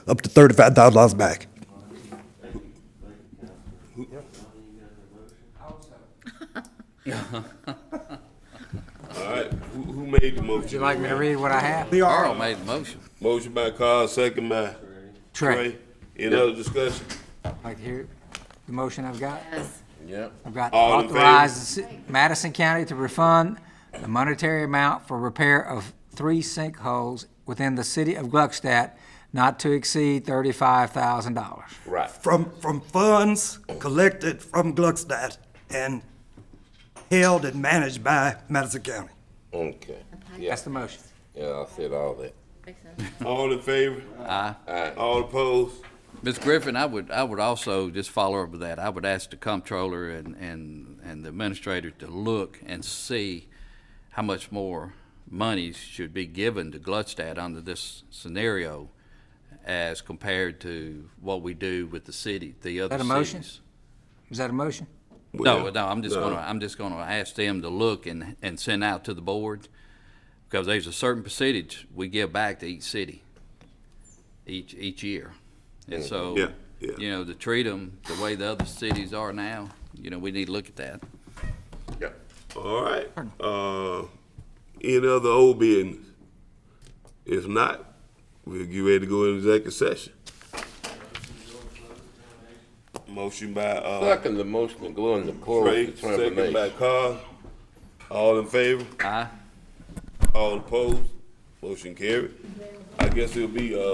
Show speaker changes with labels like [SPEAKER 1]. [SPEAKER 1] up to thirty-five thousand dollars back.
[SPEAKER 2] All right, who, who made the motion?
[SPEAKER 3] Would you like me to read what I have?
[SPEAKER 4] Carl made the motion.
[SPEAKER 2] Motion by Carl, second by Trey. Any other discussion?
[SPEAKER 3] Like to hear the motion I've got?
[SPEAKER 4] Yep.
[SPEAKER 3] I've got
[SPEAKER 2] All in favor?
[SPEAKER 3] authorize the ci- Madison County to refund the monetary amount for repair of three sinkholes within the city of Gluckstadt not to exceed thirty-five thousand dollars.
[SPEAKER 2] Right.
[SPEAKER 1] From, from funds collected from Gluckstadt and held and managed by Madison County.
[SPEAKER 2] Okay.
[SPEAKER 3] That's the motion.
[SPEAKER 2] Yeah, I said all that. All in favor?
[SPEAKER 4] Aye.
[SPEAKER 2] Aye. All opposed?
[SPEAKER 4] Ms. Griffin, I would, I would also just follow up with that. I would ask the comptroller and, and, and the administrator to look and see how much more monies should be given to Gluckstadt under this scenario as compared to what we do with the city, the other
[SPEAKER 3] That a
[SPEAKER 4] cities.
[SPEAKER 3] motion? Is that a motion?
[SPEAKER 4] No, no, I'm just
[SPEAKER 2] Uh,
[SPEAKER 4] gonna, I'm just gonna ask them to look and, and send out to the board, because there's a certain percentage we give back to each city, each, each year. And so,
[SPEAKER 2] Mm-hmm. Yeah, yeah.
[SPEAKER 4] you know, to treat them the way the other cities are now, you know, we need to look at that.
[SPEAKER 2] Yeah. All right. Uh, any other old business? If not, we'll get ready to go into executive session. Motion by, uh,
[SPEAKER 5] Second, the motion to go into plural
[SPEAKER 2] Trey, second by
[SPEAKER 5] determination.
[SPEAKER 2] Carl. All in favor?
[SPEAKER 4] Aye.
[SPEAKER 2] All opposed? Motion carried. I guess it'll be, uh,